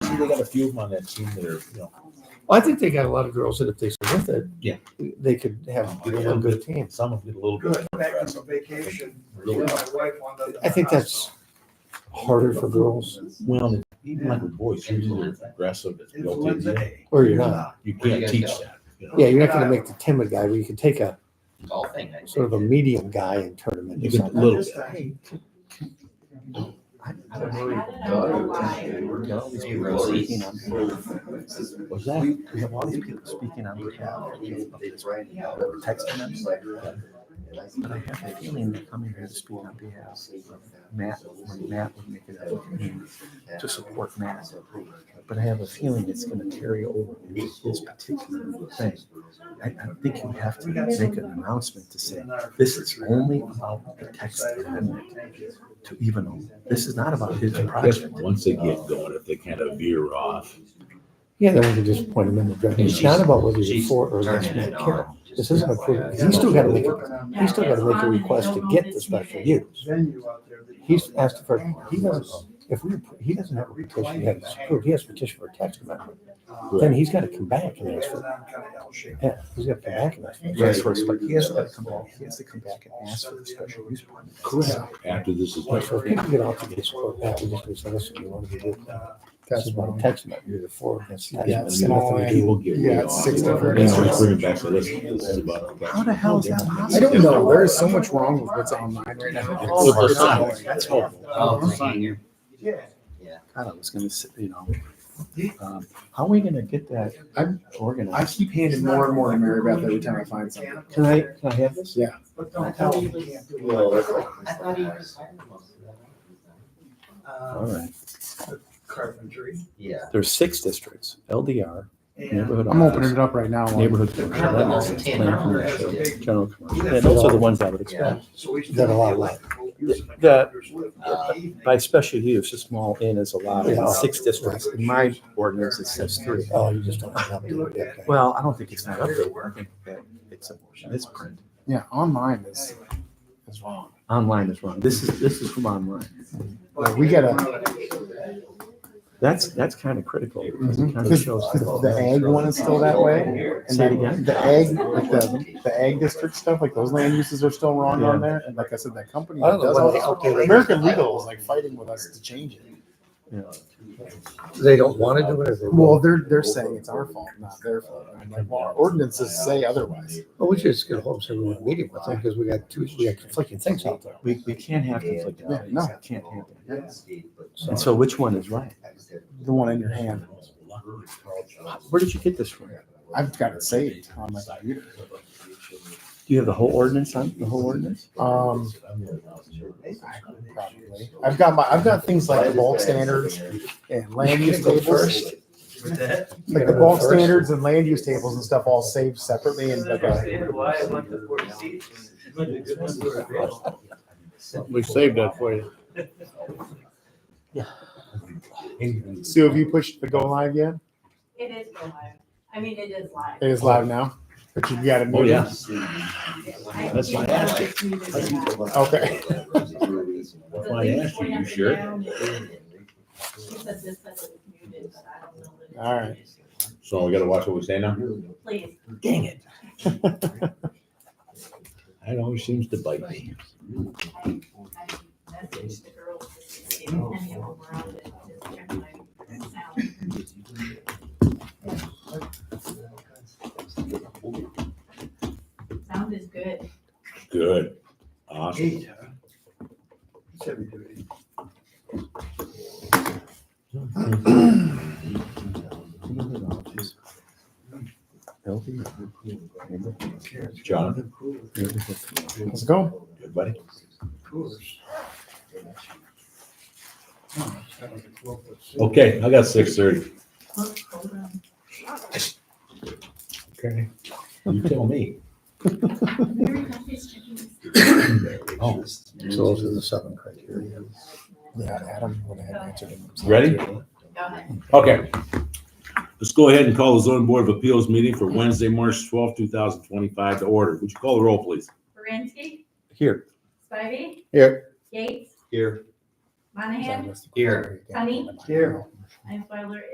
they got a few of them on that team that are, you know, Well, I think they got a lot of girls that if they stay with it, Yeah. they could have get a real good team. some of them get a little bit. Good, back on some vacation. Really? Yeah, my wife wanted to- I think that's harder for girls, Well, even like with boys, you're either aggressive, it's It's built in, you Wednesday. or you're not. you can't teach that. you know? Yeah, you're not gonna make the timid guy, but you can take a golfing, I think. sort of a medium guy and turn him You into can, something. little This bit. time. Rosie. What's that? We have a lot of people speaking on behalf of text amendments. But I have a feeling they come in here to speak on behalf of Matt, when Matt would make it out to support Matt. But I have a feeling it's gonna carry over this particular thing. I, I think you have to make an announcement to say, this is only about the text amendment to even, this is not about his I guess project. once they get going, if they kind of veer off, Yeah, then we can just point him in the direction. It's not about whether you're for or against Matt Carroll. This isn't a proof, he's still gotta make, a- he's still gotta make a request to get the special use. Venue out there. that- He's asked for, he doesn't, if we, appro- he doesn't have a petition, he has approved, he has a petition for a tax amendment. Uh, Then he's gotta come back and ask it's for, not kind of L-shaped. yeah, he's gotta come back and ask. for- He has to respect- he has to come back, he has to come back and ask for the special use permit. Correct. after this is. So if people get out to get support back, we just say, listen, you wanna be with that. uh, This is about a text amendment, you're the for or against. tax Yeah, amendment. small people get yeah, way it's off. six to And thirty. so it's bringing back to this, this is about. How the hell is that possible? I don't know. There is so much wrong with what's online right now. With the It's signs, annoying. that's horrible. Oh, Yeah. God, I was gonna say, you know, um, how are we gonna get that I'm- I organized? keep handing more and more to Mary Beth every time I find something. Can I, can I have this? But don't tell me you can't do it. All Uh, right, Carpentry Yeah. there's six districts, LDR, and. neighborhood I'm opening office, it up right now. neighborhood commercial, land office, planned commercial, general commercial. And those are the ones I would expect. So we used to That a lot of deal with The- the- computers with- uh, By special use, a small inn is allowed in six districts. In my ordinance, it says three. Oh, you just don't have to. look at that. Well, I don't think it's not up there. I think that it's a, it's print. Yeah, online is, is wrong. Online is wrong. This is, this is from online. Like, we gotta, That's, that's kind of critical. because it kind of This- shows- this- Mm-hmm. the ag one is still that way. And Say it then again? the ag, like the, the ag district stuff, like those land uses are still wrong on there. And like I said, that company I that don't know does what all the this, hell they- American Legal is like fighting with us to change it. Yeah. They don't want to do it. or they Well, won't? they're, they're saying it's our fault, not their fault. I mean, like, well, our ordinances say otherwise. Well, Oh, we should just get a hold of someone and meet him with them because we got two, we got conflicting things out there. We, we can't have conflicting Yeah, values. no. That Can't happen. And And so which one is right? The one in your hand. Where did you get this from? Do I've got it saved on my computer. you have the whole ordinance on, the whole ordinance? Um, probably. I've got my, I've got things like the bulk standards and land use tables. Like the bulk standards and land use tables and stuff all saved separately and like uh, a, We saved that for you. Sue, have you pushed the go live yet? It is go live. I mean, it is live. It is live now, but you've got it Oh, muted. yeah. I- That's why I asked you. It's muted and not. Oh. Okay. That's why I asked you, you sure? She said this said it was muted, but I don't know. that it's All right. muted. So we gotta watch what we say now? Please. Dang it. That always seems to bite me. I I messaged the girls to see if any of them were on it, just check my sound. Sound is good. Good. Awesome. Eight, huh? It's heavy duty. LDR, neighborhood, Jonathan, neighborhood. Let's go. good buddy. Coolers. Oh, it's got like a 12 foot ceiling. Okay, I got six thirty. Hold on. You tell me. Very nice chickens. Oh, So those are the seven criteria. Yeah, Adam would have answered him. Ready? Go ahead. Okay. Let's go ahead and call the zoning board of appeals meeting for Wednesday, March twelfth, two thousand twenty-five to order. Would you call the roll, please? Baranski? Here. Spivey? Here. Yates? Here. Monahan? Here. Honey? Here. Einsweiler